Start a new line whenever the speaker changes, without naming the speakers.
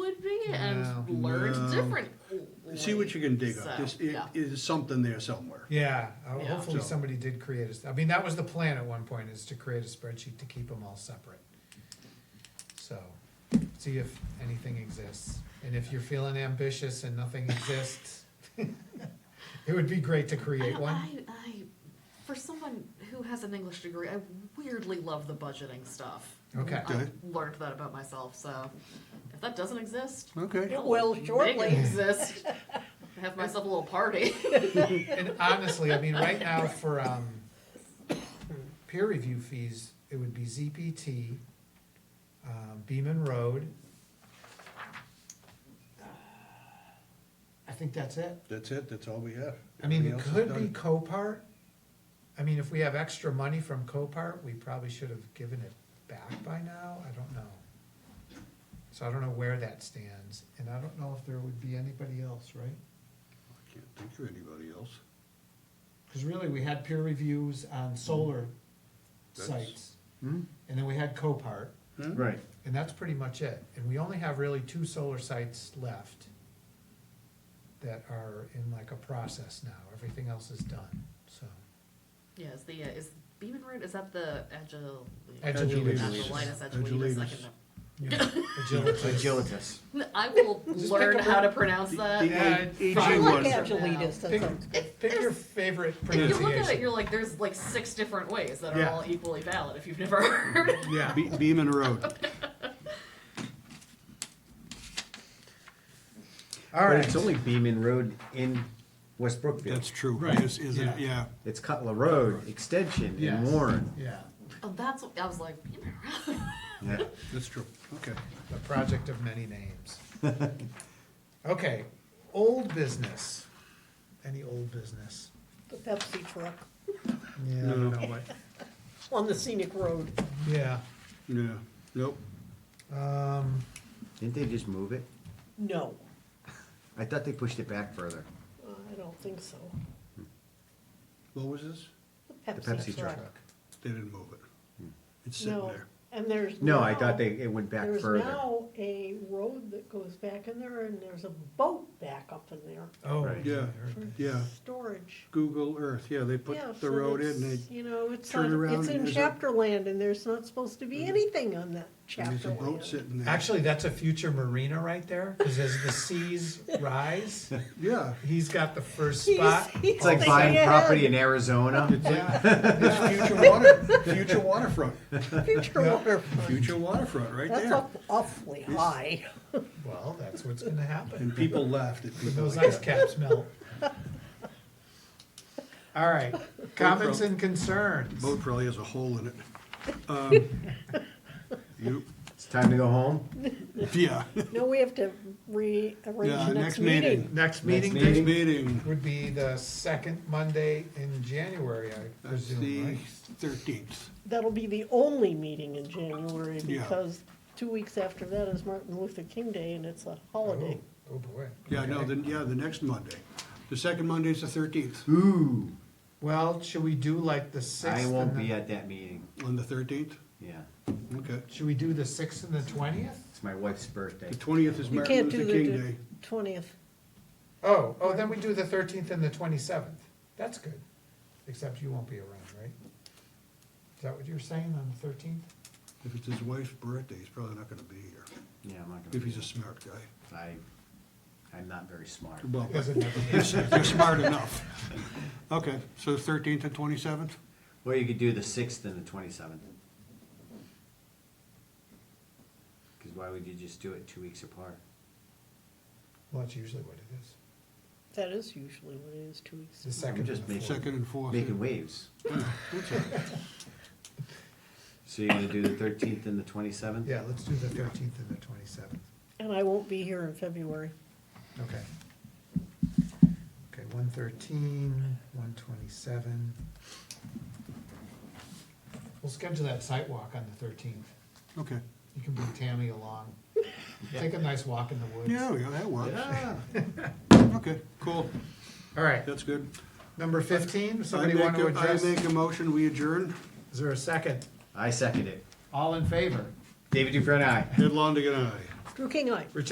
it and
No.
learned
No.
different.
See what you can dig up.
So,
This, it
yeah.
is something there somewhere.
Yeah, uh,
Yeah.
hopefully
So-
somebody did create a, s- I mean, that was the plan at one point, is to create a spreadsheet to keep them all separate. So, see if anything exists, and if you're feeling ambitious and nothing exists, it would be great to
I,
create
don't-
one.
I, I, for someone who has an English degree, I weirdly love the budgeting stuff.
Okay.
I
Okay.
learned that about myself. So if that doesn't exist,
Okay.
It will
They
shortly.
can exist. Have myself a little party.
And honestly, I mean, right now for, um, peer review fees, it would be ZPT, um, Beaman Road. I think that's it.
That's it. That's all we have.
I mean, it
Everything else is
could be
done.
Copart. I mean, if we have extra money from Copart, we probably should have given it back by now, I don't know. So I don't know where that stands, and I don't know if there would be anybody else, right?
I Can't think of anybody else.
Cause really, we had peer reviews on solar
Mm-hmm. That's-
sites,
Hmm?
and then we had Copart,
Right.
and that's pretty much it, and we only have really two solar sites left that are in like a process now, everything else is done, so.
Yeah, is the uh, is Beeman Root? Is that the agile?
Agiletus.
Agilitas. Agilitas. I, can-
Agilitas.
Agilitas.
I will
Just
learn
pick a
how to
word.
pronounce that.
the- Yeah,
aging
I like
ones.
Angelitas, that
Pick-
sounds good.
Pick your favorite
if you look at it,
pronunciation.
you're like, there's like six different ways that are
Yeah.
all equally valid. If you've never heard, it.
Yeah, Be- Beaman Road.
All
But it's
right,
only Beaman Road in West Brookfield.
That's true.
Right.
Is, is it,
Yeah.
yeah.
It's Cutler Road Extension
Yes.
in Warren.
yeah,
oh, that's what I was like. Beeman Root.
Yeah.
That's true. Okay.
the project of many names. Okay, old business. Any old business?
The Pepsi truck
Yeah, I don't know what-
on the scenic road.
yeah.
Yeah. Nope.
Um,
Didn't they just move it?
No,
I thought they pushed it back further.
uh, I don't think so.
What was this?
The Pepsi
Pepsi truck.
truck.
They didn't move it. It's sitting
No,
there.
and there's
No, I
now-
thought they it went back
There's
further.
now a road that goes back in there and there's a boat back up in there
oh,
Right.
yeah, I
Yeah.
heard that.
Yeah.
storage.
Google Earth. Yeah, they put
Yeah,
the
so
road in.
it's,
They,
You know, it's
turn
on,
around
it's
and
in
there's a-
chapter land and there's not supposed to be anything on that
there's
chapter
a boat
land.
sitting there.
Actually, that's a future marina right there, because as the seas rise,
yeah.
he's got the first
He's-
spot.
he's
It's like
thinking
buying
ahead.
property in Arizona.
It's like, it's future water, future waterfront,
Future
Yeah.
waterfront.
future waterfront right
That's
there.
up awfully high.
Well, that's what's gonna happen.
And people laughed at people
Those
like
ice
that.
caps melt. All right, comments and concerns.
Boat probably has a hole in it. Um, You,
It's time to go home.
yeah,
No, we have to rearrange
Yeah,
the
next
next
meeting.
meeting.
Next meeting
meeting.
next meeting,
would be the second Monday in January, I
that's the
presume, right?
thirteenth.
That'll be the only meeting in January
Yeah.
because two weeks after that is Martin Luther King Day and it's a holiday.
Oh, oh boy.
Yeah, no,
Okay.
then, yeah, the next Monday. The second Monday's the thirteenth,
Ooh.
Well, should we do like the sixth?
I won't
and
be
the-
at that meeting.
on the thirteenth,
Yeah.
okay.
Should we do the sixth and the twentieth?
It's my wife's birthday.
The twentieth is
You
Martin
can't do
Luther King Day.
the twentieth.
Oh, oh, then we do the thirteenth and the twenty-seventh. That's good. Except you won't be around, right? Is that what you're saying on the thirteenth?
If it's his wife's birthday, he's probably not gonna be here,
Yeah, I'm not gonna.
if
be
he's a smart guy.
there. I, I'm not very smart.
Well,
Doesn't matter.
you're smart enough. Okay, so thirteenth and twenty-seventh?
Or you could do the sixth and the twenty-seventh. Because why would you just do it two weeks apart?
Well, that's usually what it is.
That is usually what it is, two weeks.
The second
just
and the
making-
fourth.
Second and fourth.
Making waves.
That's all right.
So you're gonna do the thirteenth and the twenty-seventh?
Yeah, let's do the thirteenth and the twenty-seventh.
And I won't be here in February.
Okay. Okay, one thirteen, one twenty-seven. We'll schedule that site walk on the thirteenth.
Okay.
You can bring Tammy along. Take a nice walk in the woods.
Yeah, yeah, that works.
Yeah.
Okay, cool.
All right,
That's good.
number fifteen,
I
somebody
make,
want to
a- I
address?
make a motion, we adjourn.
Is there a second?
I second it.
All in favor?
David Dufresne, aye.
Ed Longigan, aye.
Drew King, I.
Rich